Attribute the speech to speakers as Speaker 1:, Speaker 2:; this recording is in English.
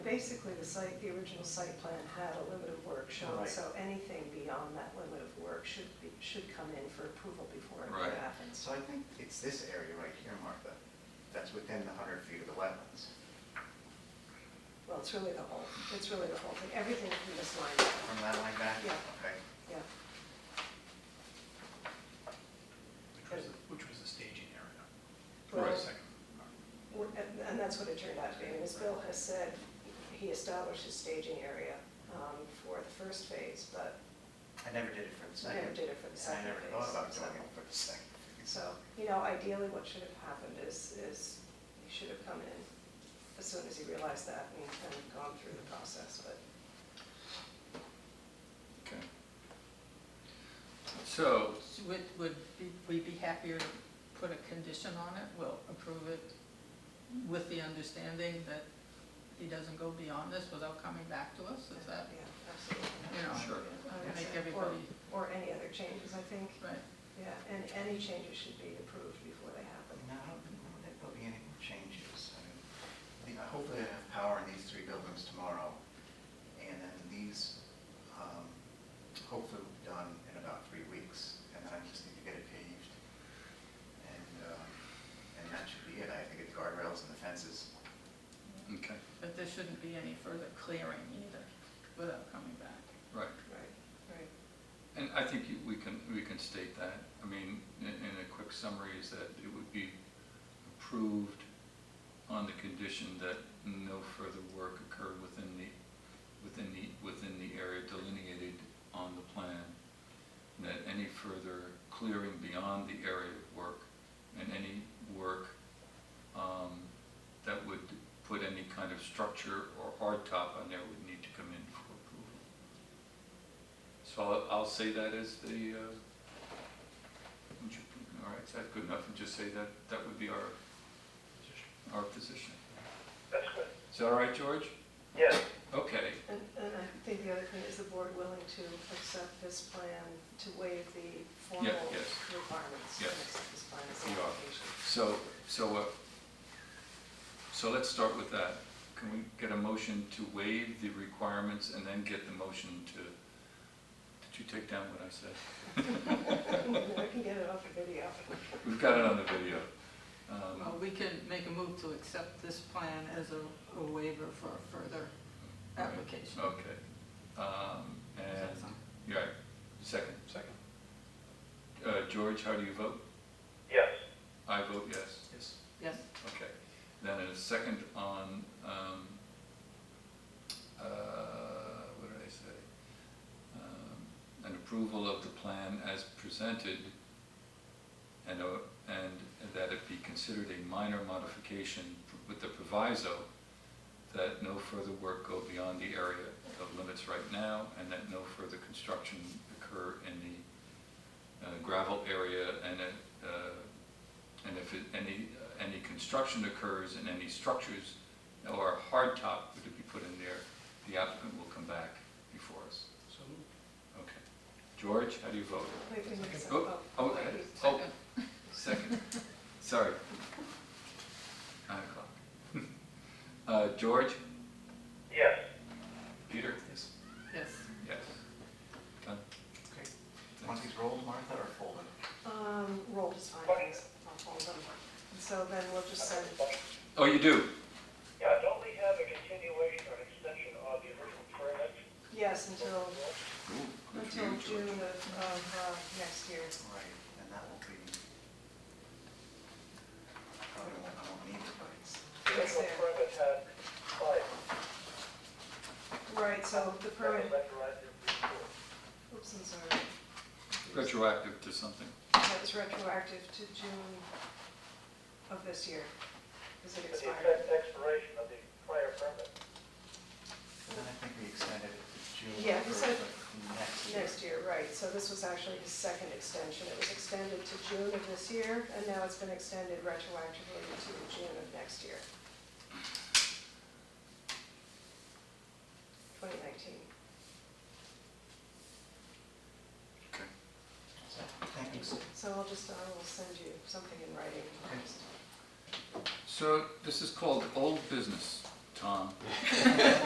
Speaker 1: basically, the site, the original site plan had a limit of work shown,
Speaker 2: Right.
Speaker 1: so anything beyond that limit of work should be, should come in for approval before
Speaker 3: Right.
Speaker 1: it happens.
Speaker 2: So I think it's this area right here, Martha, that's within the hundred feet of the wetlands.
Speaker 1: Well, it's really the whole, it's really the whole thing, everything from this line, down.
Speaker 2: From that line back?
Speaker 1: Yeah.
Speaker 2: Okay.
Speaker 1: yeah.
Speaker 4: Which was, the- which was the staging area.
Speaker 1: Well,
Speaker 3: Right.
Speaker 4: Second.
Speaker 1: w- And and that's what it turned out to be, and as Bill has said, he established his staging area um, for the first phase, but
Speaker 2: I never did it for the
Speaker 1: I
Speaker 2: second.
Speaker 1: never did it for the
Speaker 2: And I
Speaker 1: second
Speaker 2: never
Speaker 1: phase.
Speaker 2: thought about
Speaker 1: so-
Speaker 2: doing it for the second. phase.
Speaker 1: So, you know, ideally, what should have happened is, is he should have come in as soon as he realized that and and gone through the process, but
Speaker 3: Okay. So,
Speaker 5: Would, would be- we be happier to put a condition on it? We'll approve it with the understanding that he doesn't go beyond this without coming back to us? Is that,
Speaker 1: Yeah, absolutely.
Speaker 5: you know,
Speaker 3: Sure.
Speaker 5: I would make
Speaker 1: Or-
Speaker 5: everybody,
Speaker 1: Or any other changes, I think,
Speaker 5: right?
Speaker 1: yeah, and any changes should be approved before they happen.
Speaker 2: No, I don't think there'll be any more changes. I mean, the- I hope they have power in these three buildings tomorrow, and then these, um, hopefully will be done in about three weeks, and then I just need to get it paved. And, um, and that should be it. I have to get the guardrails and the fences.
Speaker 3: okay,
Speaker 5: But there shouldn't be any further clearing either without coming back.
Speaker 3: right.
Speaker 1: Right, right.
Speaker 3: And I think you- we can, we can state that. I mean, in, in a quick summary is that it would be approved on the condition that no further work occurred within the, within the, within the area delineated on the plan. and That any further clearing beyond the area of work and any work, um, that would put any kind of structure or hardtop on there would need to come in for approval. So I'll, I'll say that as the, uh, all right, is that good enough? And just say that, that would be our, our position.
Speaker 6: That's good.
Speaker 3: Is that all right, George?
Speaker 6: Yes,
Speaker 3: Okay,
Speaker 1: And, and I think the other thing is the board willing to accept this plan, to waive the formal
Speaker 3: yes.
Speaker 1: requirements. to
Speaker 3: Yes.
Speaker 1: accept This plan as
Speaker 3: We
Speaker 1: an
Speaker 3: are.
Speaker 1: application.
Speaker 3: so, so, uh, so let's start with that. Can we get a motion to waive the requirements and then get the motion to, did you take down what I said?
Speaker 1: I can get it off the video.
Speaker 3: We've got it on the video.
Speaker 5: Well,
Speaker 3: Um,
Speaker 5: we can make a move to accept this plan as a- a waiver for a further
Speaker 3: Right.
Speaker 5: application.
Speaker 3: Okay. Um,
Speaker 5: Is that
Speaker 3: And,
Speaker 5: something?
Speaker 3: yeah, second.
Speaker 4: Second.
Speaker 3: Uh, George, how do you vote?
Speaker 6: yes,
Speaker 3: I vote yes.
Speaker 4: Yes.
Speaker 5: Yes,
Speaker 3: Okay, then a second on, um, uh, what did I say? Um, An approval of the plan as presented, and, a- and that it be considered a minor modification with the proviso that no further work go beyond the area of limits right now, and that no further construction occur in the uh, gravel area and, uh, and if it- any, any construction occurs and any structures or hardtop were to be put in there, the applicant will come back before us.
Speaker 4: So moved.
Speaker 3: Okay. George, how do you vote?
Speaker 1: Wait, we need some-
Speaker 3: Oh, oh,
Speaker 1: wait,
Speaker 3: eh,
Speaker 1: we-
Speaker 3: oh, second. Sorry. Nine o'clock. Uh, George?
Speaker 6: yes.
Speaker 3: Peter?
Speaker 4: Yes.
Speaker 5: yes.
Speaker 3: Yes. Done?
Speaker 2: Okay. Want these rolled, Martha, or folded?
Speaker 1: Um, roll is fine, I'll hold them. And So then we'll just send,
Speaker 3: Oh, you do?
Speaker 6: Yeah, don't we have a continuation or an extension of the original permit?
Speaker 1: yes, until,
Speaker 3: Ooh, good for you,
Speaker 1: until
Speaker 3: George.
Speaker 1: June of, of, uh, next year.
Speaker 2: Right, and that will be. I Probably won't, I won't need it, but it's.
Speaker 6: The
Speaker 1: Yes,
Speaker 6: original
Speaker 1: there.
Speaker 6: permit had five.
Speaker 1: Right, so the
Speaker 6: That was
Speaker 1: permit,
Speaker 6: retroactive to the fourth.
Speaker 1: oops, I'm sorry,
Speaker 3: Retroactive to something.
Speaker 1: that was retroactive to June of this year, because it
Speaker 6: To the
Speaker 1: expired.
Speaker 6: effect expiration of the prior permit.
Speaker 2: And then I think we extended it to June.
Speaker 1: Yeah, we
Speaker 2: first
Speaker 1: said
Speaker 2: of Next year.
Speaker 1: Next year, right, so this was actually his second extension, it was extended to June of this year, and now it's been extended retroactively to June of next year. Twenty nineteen.
Speaker 3: Okay.
Speaker 2: So, Thank you.
Speaker 1: So I'll just, I will send you something in writing.
Speaker 2: Okay.
Speaker 3: So this is called old business, Tom.